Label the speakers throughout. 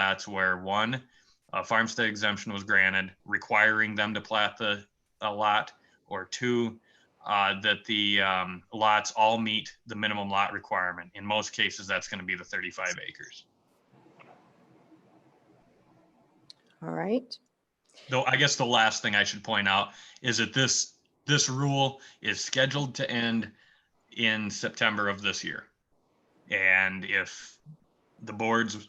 Speaker 1: that's where one, a farmstead exemption was granted, requiring them to plat the, a lot, or two, uh, that the, um, lots all meet the minimum lot requirement. In most cases, that's gonna be the thirty-five acres.
Speaker 2: All right.
Speaker 1: Though I guess the last thing I should point out is that this, this rule is scheduled to end in September of this year. And if the boards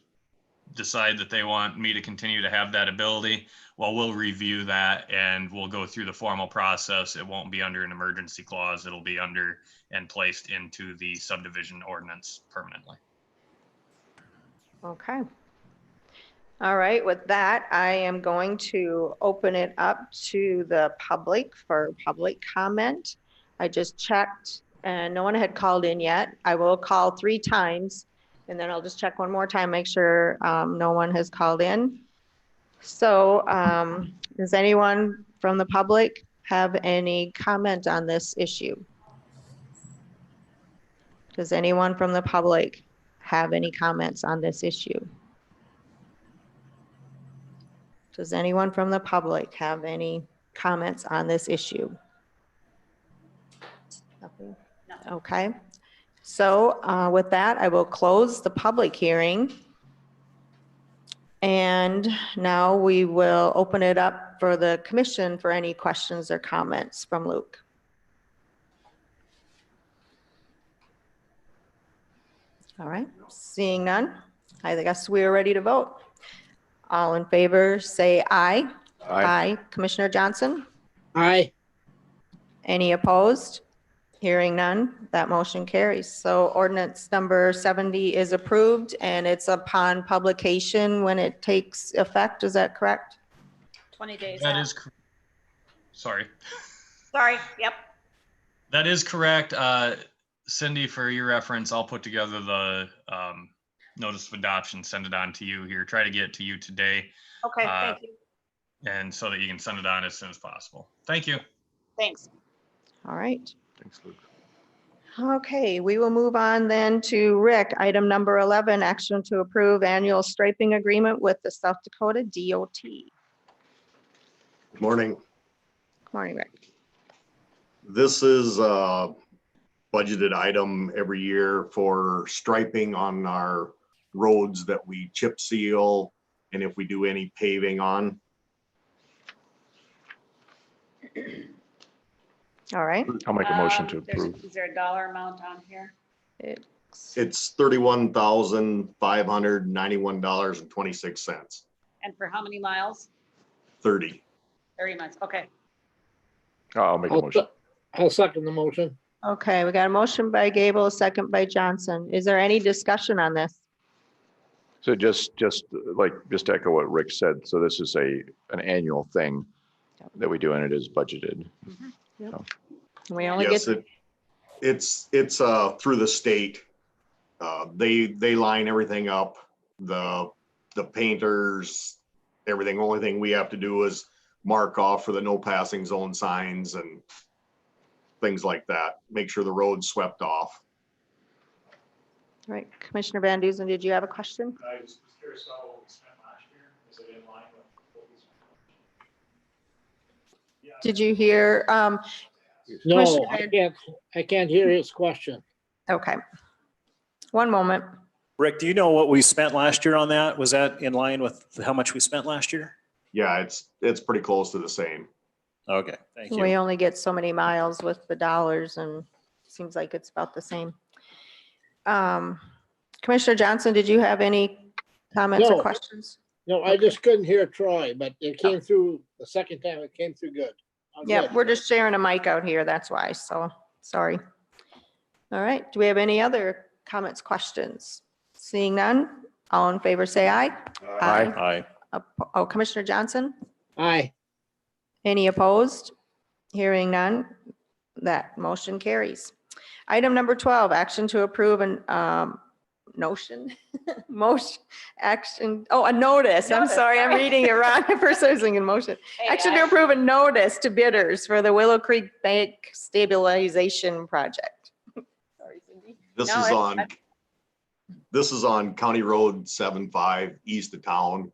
Speaker 1: decide that they want me to continue to have that ability, well, we'll review that and we'll go through the formal process. It won't be under an emergency clause. It'll be under and placed into the subdivision ordinance permanently.
Speaker 2: Okay. All right, with that, I am going to open it up to the public for public comment. I just checked and no one had called in yet. I will call three times and then I'll just check one more time, make sure um, no one has called in. So um, does anyone from the public have any comment on this issue? Does anyone from the public have any comments on this issue? Does anyone from the public have any comments on this issue? Nothing? Okay, so uh, with that, I will close the public hearing. And now we will open it up for the commission for any questions or comments from Luke. All right, seeing none, I guess we are ready to vote. All in favor, say aye. Aye. Commissioner Johnson?
Speaker 3: Aye.
Speaker 2: Any opposed? Hearing none, that motion carries. So ordinance number 70 is approved and it's upon publication when it takes effect, is that correct?
Speaker 4: 20 days
Speaker 1: That
Speaker 4: out.
Speaker 1: is, cor- sorry.
Speaker 4: Sorry, yep.
Speaker 1: That is correct. Uh, Cindy, for your reference, I'll put together the um, notice of adoption, send it on to you here, try to get it to you today.
Speaker 4: Okay,
Speaker 1: Uh,
Speaker 4: thank you.
Speaker 1: And so that you can send it on as soon as possible. Thank you.
Speaker 4: Thanks.
Speaker 2: All right.
Speaker 1: Thanks, Luke.
Speaker 2: Okay, we will move on then to Rick, item number 11, action to approve annual striping agreement with the South Dakota DOT. Good
Speaker 5: Good Morning.
Speaker 2: Morning, Rick.
Speaker 5: This is a budgeted item every year for striping on our roads that we chip seal and if we do any paving on.
Speaker 2: All right,
Speaker 6: I'll make a motion to
Speaker 4: Um, there's-
Speaker 6: approve.
Speaker 4: Is there a dollar amount on here?
Speaker 5: It's thirty-one thousand five hundred ninety-one dollars and twenty-six cents,
Speaker 4: And for how many miles?
Speaker 5: thirty.
Speaker 4: 30 miles, okay.
Speaker 6: Oh, I'll make a
Speaker 3: I'll
Speaker 6: motion.
Speaker 3: se- I'll second the motion.
Speaker 2: okay, we got a motion by Gable, a second by Johnson. Is there any discussion on this?
Speaker 6: So just, just like, just to echo what Rick said, so this is a, an annual thing that we do and it is budgeted.
Speaker 2: We only get,
Speaker 5: Yes, it, it's, it's, uh, through the state. Uh, they, they line everything up, the, the painters, everything. Only thing we have to do is mark off for the no passing zone signs and things like that. Make sure the road's swept off.
Speaker 2: all right, Commissioner Van Duzen, did you have a question?
Speaker 7: I was was curious about what we spent last year. Is it in line with what we spent? Yeah,
Speaker 2: Did you hear, um,
Speaker 3: No,
Speaker 2: Commissioner
Speaker 3: I
Speaker 2: Van-
Speaker 3: can't, I can't hear his question.
Speaker 2: okay. One moment.
Speaker 7: Rick, do you know what we spent last year on that? Was that in line with how much we spent last year?
Speaker 5: Yeah, it's, it's pretty close to the same.
Speaker 7: Okay, thank you.
Speaker 2: We only get so many miles with the dollars and seems like it's about the same. Um, Commissioner Johnson, did you have any comments or
Speaker 3: No.
Speaker 2: questions?
Speaker 3: No, I just couldn't hear Troy, but it
Speaker 6: Ah.
Speaker 3: came through, the second time it came through good. I'm
Speaker 2: Yeah,
Speaker 3: good.
Speaker 2: we're just sharing a mic out here, that's why, so, sorry. All right, do we have any other comments, questions? Seeing none, all in favor, say aye.
Speaker 6: Aye.
Speaker 7: Aye.
Speaker 2: Oppo- Oh, Commissioner Johnson?
Speaker 3: Aye,
Speaker 2: Any opposed? Hearing none, that motion carries. Item number 12, action to approve an um, notion, motion, action, oh, a notice. I'm
Speaker 4: Notice,
Speaker 2: sorry, I'm
Speaker 4: sorry.
Speaker 2: reading it wrong. I first I was thinking motion.
Speaker 4: Hey,
Speaker 2: Action
Speaker 4: I-
Speaker 2: to approve a notice to bidders for the Willow Creek Bank Stabilization Project. Sorry, Cindy.
Speaker 5: This
Speaker 4: No,
Speaker 5: is
Speaker 4: it's-
Speaker 5: on, This is on County Road seven five east of town.